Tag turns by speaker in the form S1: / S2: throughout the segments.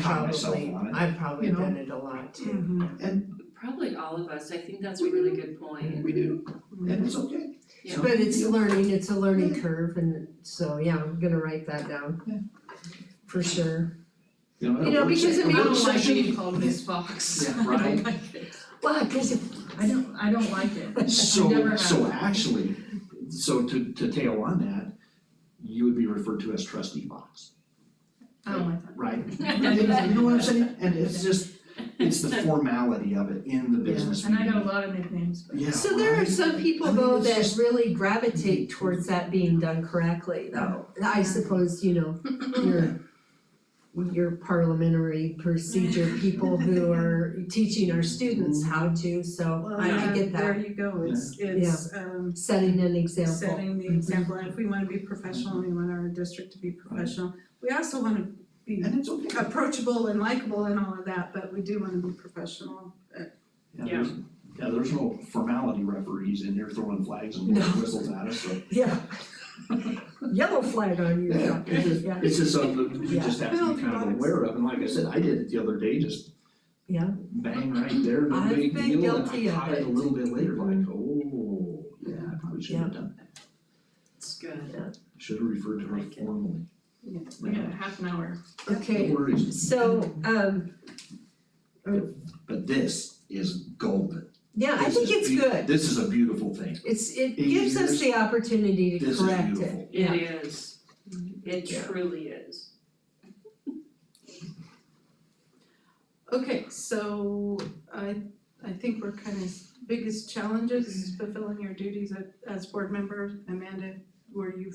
S1: caught myself
S2: Probably,
S1: on it. Mm-hmm.
S2: I've probably
S3: You know?
S2: done it a lot too.
S1: And
S4: Probably all of us, I think that's a really good point.
S1: we do, and it's okay.
S4: Yeah.
S2: But it's learning, it's a learning curve and so, yeah, I'm gonna write that down.
S1: Yeah.
S2: For sure.
S1: You know,
S2: You know,
S1: it'll work.
S2: because I
S3: I
S2: mean,
S3: don't like
S2: should-
S3: being called Miss Fox.
S1: Yeah,
S3: I
S1: right.
S3: don't like it.
S2: Well, cause if,
S3: I don't, I don't like it. I never
S1: So,
S3: have.
S1: so actually, so to, to tail on that, you would be referred to as trustee Fox,
S3: I don't like that.
S1: right? You know what I'm saying? And it's just, it's the formality of it in the business.
S3: And I got a
S1: meeting.
S3: lot of nicknames, but.
S1: Yeah,
S2: so there are
S1: right?
S2: some people
S1: I mean,
S2: though
S1: it's
S2: that
S1: just-
S2: really gravitate towards that being done correctly though. I suppose, you know, your your parliamentary procedure, people who are teaching our students
S1: Mm-hmm.
S2: how to, so
S5: Well,
S2: I I
S5: yeah,
S2: get
S5: there
S2: that,
S5: you go, it's it's um
S2: setting an example.
S5: setting
S2: Mm-hmm.
S5: the example, and if we wanna be professional, we want our district to be professional. We also wanna be
S1: And it's okay.
S5: approachable and likable and all of that, but we do wanna be professional.
S1: Yeah, there's, yeah, there's no formality referees in there throwing flags and
S2: No.
S1: whistles at us, so.
S2: Yeah. Yellow flag on you, yeah.
S1: It's just-
S2: Yeah.
S1: It's just something that you just have to be
S5: Yeah.
S1: kind of aware of, and like I said, I did it the other day, just
S2: Yeah.
S1: bang right there, no
S2: I've
S1: big
S2: been
S1: deal, and
S2: guilty
S1: I
S2: of
S1: caught it
S2: it. Mm-hmm.
S1: a little bit later, like, oh, yeah, I probably shouldn't have done that.
S4: It's good.
S1: Should have referred to her
S4: Like it.
S1: formally.
S5: Yeah.
S3: We got a half an hour.
S1: No
S2: Okay,
S1: worries,
S2: so, um,
S1: but this is golden.
S2: yeah, I
S1: This
S2: think
S1: is
S2: it's
S1: beau-
S2: good.
S1: This is a beautiful thing,
S2: It's, it
S1: In
S2: gives
S1: years,
S2: us the opportunity to
S1: this is
S2: correct it,
S1: beautiful.
S2: yeah.
S4: It is. It
S2: Yeah.
S4: truly is.
S5: Okay, so I I think we're kind of biggest challenges is fulfilling your duties as as board member. Amanda, were you,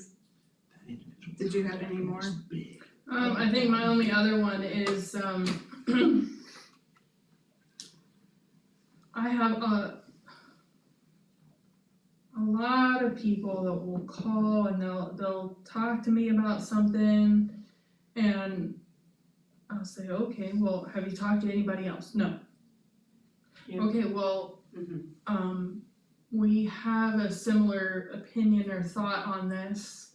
S5: Did you have any more?
S1: It's big.
S3: Um, I think my only other one is, um, I have a, a lot of people that will call and they'll, they'll talk to me about something and I'll say, okay, well, have you talked to anybody else? No.
S4: Yeah.
S3: Okay, well,
S4: Mhm.
S3: um, we have a similar opinion or thought on this.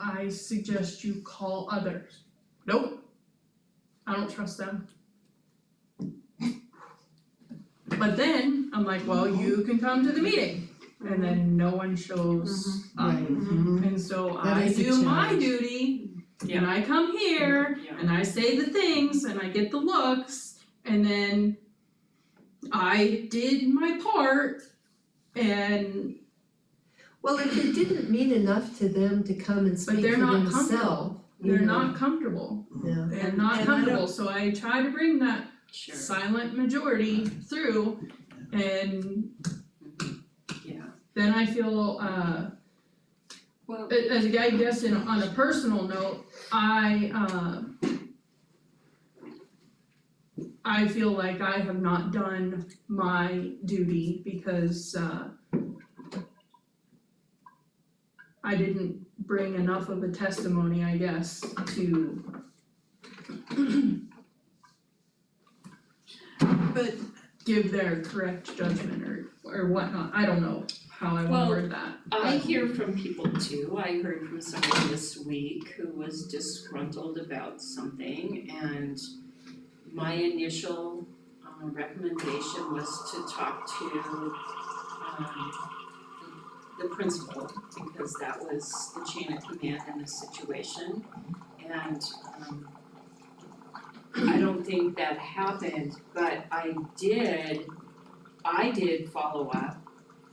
S3: I suggest you call others. Nope. I don't trust them. But then I'm like, well, you can come to the meeting. And then no one shows up.
S2: Right.
S3: And so
S2: That
S3: I
S2: is a
S3: do my
S2: challenge.
S3: duty and
S4: Yeah.
S3: I come here
S4: Yeah.
S3: and I say the things and I get the looks and then I did my part and
S2: Well, if it didn't mean enough to them to come and speak
S3: but
S2: for
S3: they're not
S2: themselves,
S3: comfortable.
S2: you
S3: They're
S2: know,
S3: not comfortable.
S2: yeah.
S3: They're not
S5: And- and I don't-
S3: comfortable, so I try to bring that
S4: Sure.
S3: silent majority through and
S4: Yeah.
S3: then I feel uh
S4: Well,
S3: A- as a guy, I guess in, on a personal note, I, uh, I feel like I have not done my duty because, uh, I didn't bring enough of a testimony, I guess, to,
S5: But
S3: give their correct judgment or, or whatnot, I don't know how I would
S4: Well,
S3: word that.
S4: I hear from people too. I heard from someone this week who was disgruntled about something and my initial uh, recommendation was to talk to um the principal because that was the chain of command in this situation. And um I don't think that happened, but I did, I did follow up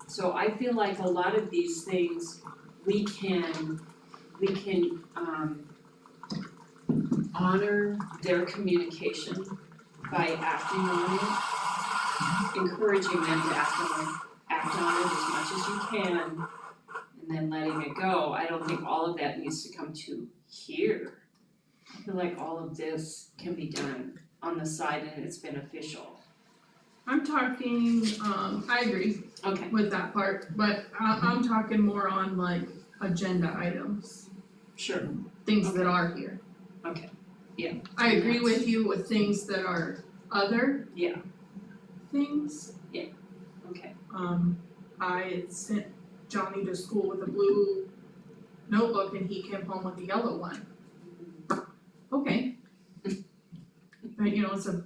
S4: so I feel like a lot of these things, we can, we can um honor their communication by acting on it, encouraging them to act on it, act on it as much as you can, and then letting it go. I don't think all of that needs to come to here. I feel like all of this can be done on the side and it's beneficial.
S3: I'm talking, um, I agree,
S4: Okay,
S3: with that part, but I, I'm talking more on like agenda items,
S4: sure,
S3: things that are here.
S4: Okay, yeah.
S3: I agree with you with things that are other.
S4: Yeah.
S3: Things,
S4: okay,
S3: um, I sent Johnny to school with a blue notebook and he came home with a yellow one. Okay. but you know, it's a